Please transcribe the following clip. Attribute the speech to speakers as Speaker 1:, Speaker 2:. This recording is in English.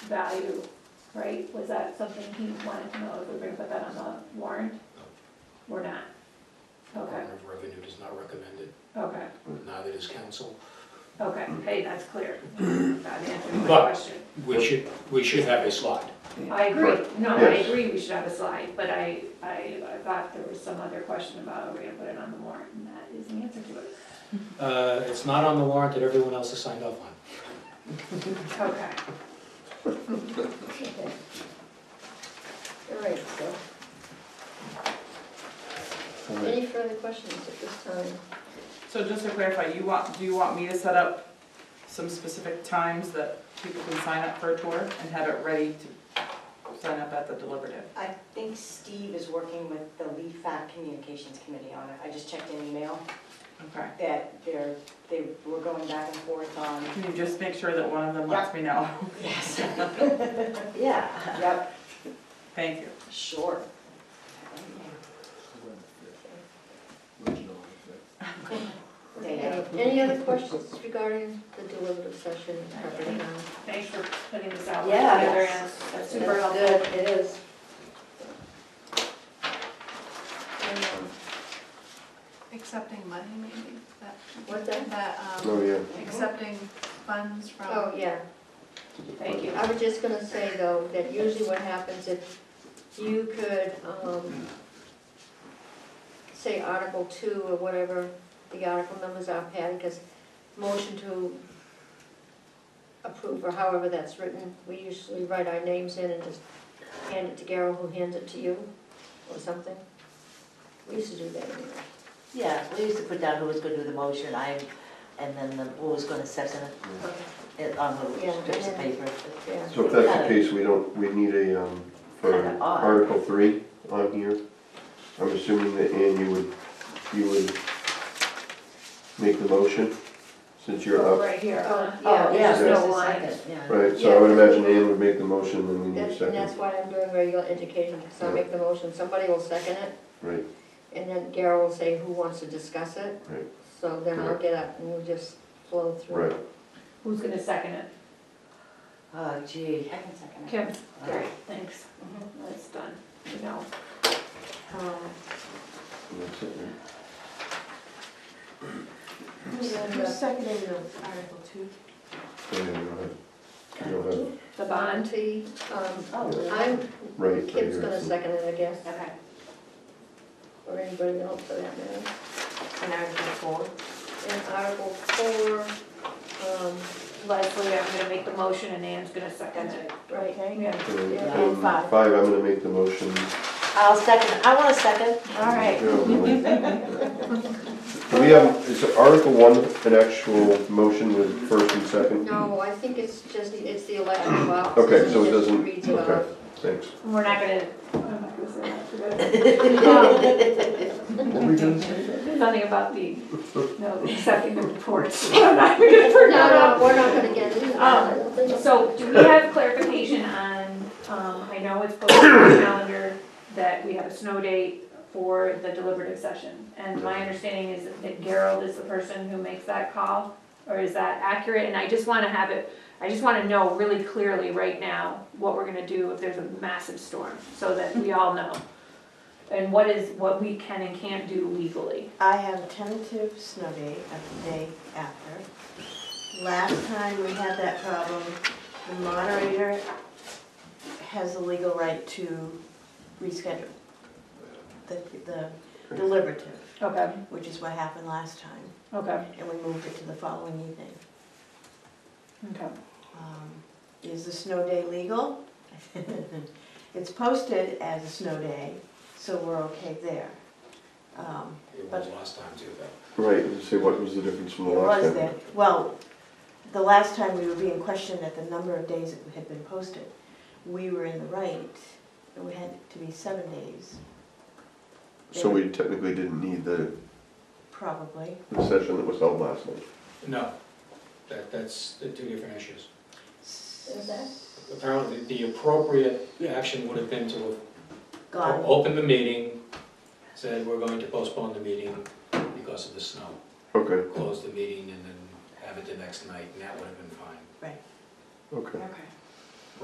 Speaker 1: value, right? Was that something he wanted to know if we were gonna put that on the warrant?
Speaker 2: No.
Speaker 1: We're not? Okay,
Speaker 2: Department of Revenue does not recommend it,
Speaker 1: okay,
Speaker 2: neither does council.
Speaker 1: okay,
Speaker 3: Mm-hmm.
Speaker 1: hey, that's clear. That answers my
Speaker 2: But-
Speaker 1: question.
Speaker 2: We should, we should have a slide.
Speaker 1: I agree, no, I
Speaker 3: Yes.
Speaker 1: agree, we should have a slide, but I, I, I thought there was some other question about, are we gonna put it on the warrant? And that is the answer to it.
Speaker 2: Uh, It's not on the warrant that everyone else has signed off on.
Speaker 1: Okay,
Speaker 4: Okay. All right, so,
Speaker 3: All right.
Speaker 4: any further questions at this time?
Speaker 5: So just to clarify, you want, do you want me to set up some specific times that people can sign up for a tour and have it ready to sign up at the deliberative?
Speaker 6: I think Steve is working with the E Lee Fact Communications Committee on it. I just checked an email
Speaker 5: Okay.
Speaker 6: that they're, they were going back and forth on,
Speaker 5: Can you just make sure that one of them lets me know?
Speaker 6: yes,
Speaker 4: Yeah.
Speaker 6: yep,
Speaker 5: Thank you.
Speaker 6: sure. There you go.
Speaker 4: Any other questions regarding the deliberative session happening now?
Speaker 1: thanks for putting this out
Speaker 4: Yeah,
Speaker 1: together, and
Speaker 4: that's-
Speaker 1: that's super
Speaker 4: That's
Speaker 1: helpful.
Speaker 4: good, It is. And, um,
Speaker 7: Accepting money, maybe, that,
Speaker 4: What's that?
Speaker 7: that,
Speaker 3: Oh,
Speaker 7: um,
Speaker 3: yeah.
Speaker 7: accepting funds
Speaker 4: Oh,
Speaker 7: from,
Speaker 4: yeah.
Speaker 1: Thank you.
Speaker 4: I was just gonna say though, that usually what happens if you could, um, say Article two or whatever the article numbers are, Patty, because motion to approve or however that's written, we usually write our names in and just hand it to Garrow who hands it to you or something. We used to do that anyway.
Speaker 8: Yeah, we used to put down who was gonna do the motion, I, and then the- who was gonna second it on
Speaker 4: Yeah,
Speaker 8: the strips of
Speaker 4: yeah.
Speaker 8: paper.
Speaker 4: Yeah,
Speaker 3: So if that's the case, we don't, we need a, um, for
Speaker 8: Kinda odd.
Speaker 3: Article three on here. I'm assuming that Ann, you would, you would make the motion, since you're up.
Speaker 1: Right here.
Speaker 4: Oh,
Speaker 8: Oh,
Speaker 4: yeah, there's
Speaker 8: there's
Speaker 4: no
Speaker 8: a
Speaker 4: line.
Speaker 8: second, Yeah.
Speaker 3: Right, so I would imagine Ann would make the motion, then we need a
Speaker 4: That's- And that's
Speaker 3: second.
Speaker 4: why I'm doing regular education, because I make the motion, somebody will second it,
Speaker 3: Right,
Speaker 4: And then Gary will say who wants to discuss it.
Speaker 3: Right.
Speaker 4: So then I'll get up and we'll just flow through.
Speaker 3: right.
Speaker 1: Who's gonna second it?
Speaker 8: Oh,
Speaker 6: I
Speaker 8: gee.
Speaker 6: can second it.
Speaker 1: Kim? Great, thanks. That's done, you know.
Speaker 4: Um,
Speaker 3: And that's it, right?
Speaker 4: and, uh,
Speaker 7: seconded Article Two?
Speaker 3: So yeah, we don't have- we don't have-
Speaker 1: The bond,
Speaker 4: Bonte, um,
Speaker 8: Oh,
Speaker 4: I'm,
Speaker 3: Right. right
Speaker 4: Kim's
Speaker 3: here,
Speaker 4: gonna
Speaker 3: so-
Speaker 4: second it, I guess,
Speaker 6: Okay,
Speaker 4: or anybody else for that matter.
Speaker 6: and I would go forward.
Speaker 4: And Article four, um,
Speaker 1: Leslie, I'm gonna make the motion and Ann's gonna second
Speaker 6: That's
Speaker 1: it.
Speaker 6: right.
Speaker 4: right,
Speaker 1: Yeah.
Speaker 3: And
Speaker 4: Yeah,
Speaker 3: then
Speaker 8: five.
Speaker 3: Five, I'm gonna make the motion.
Speaker 8: I'll second, I want a second.
Speaker 3: All right. Do we have, is Article one an actual motion with first and second?
Speaker 4: no, I think it's just, it's the election of officers.
Speaker 3: Okay, so
Speaker 4: He
Speaker 3: it
Speaker 4: just
Speaker 3: doesn't,
Speaker 4: reads it
Speaker 3: okay,
Speaker 4: off.
Speaker 3: thanks.
Speaker 1: We're not gonna, I'm not gonna say that, forget it.
Speaker 3: What were you gonna say?
Speaker 1: Nothing about the, no, accepting the reports. I'm not gonna bring that
Speaker 4: No, no,
Speaker 1: up.
Speaker 4: we're not gonna get into that. I don't think so.
Speaker 1: So do we have clarification on, um, I know it's posted on the calendar that we have a snow date for the deliberative session. And my understanding is that Gerald is the person who makes that call, or is that accurate? And I just wanna have it, I just wanna know really clearly right now what we're gonna do if there's a massive storm, so that we all know. And what is, what we can and can't do legally.
Speaker 9: I have tentative snow day of the day after. Last time we had that problem, the moderator has the legal right to reschedule the, the deliberative,
Speaker 1: Okay,
Speaker 9: which is what happened last time,
Speaker 1: okay,
Speaker 9: and we moved it to the following evening.
Speaker 1: okay.
Speaker 9: Um, Is the snow day legal? It's posted as a snow day, so we're okay there. Um,
Speaker 2: It was last time too, though.
Speaker 3: Right, you say what was the difference from the
Speaker 9: It
Speaker 3: last
Speaker 9: was
Speaker 3: time?
Speaker 9: then, well, the last time we were being questioned at the number of days it had been posted, we were in the right, and we had to be seven days,
Speaker 3: So we technically didn't need the,
Speaker 9: probably.
Speaker 3: the session that was held last night.
Speaker 2: No, that, that's the two different issues.
Speaker 4: Is that?
Speaker 2: Apparently, the appropriate action would have been to have
Speaker 9: Gone,
Speaker 2: opened the meeting, said we're going to postpone the meeting because of the snow.
Speaker 3: Okay,
Speaker 2: Close the meeting and then have it the next night, and that would have been fine.
Speaker 9: right.
Speaker 3: okay.
Speaker 6: Okay.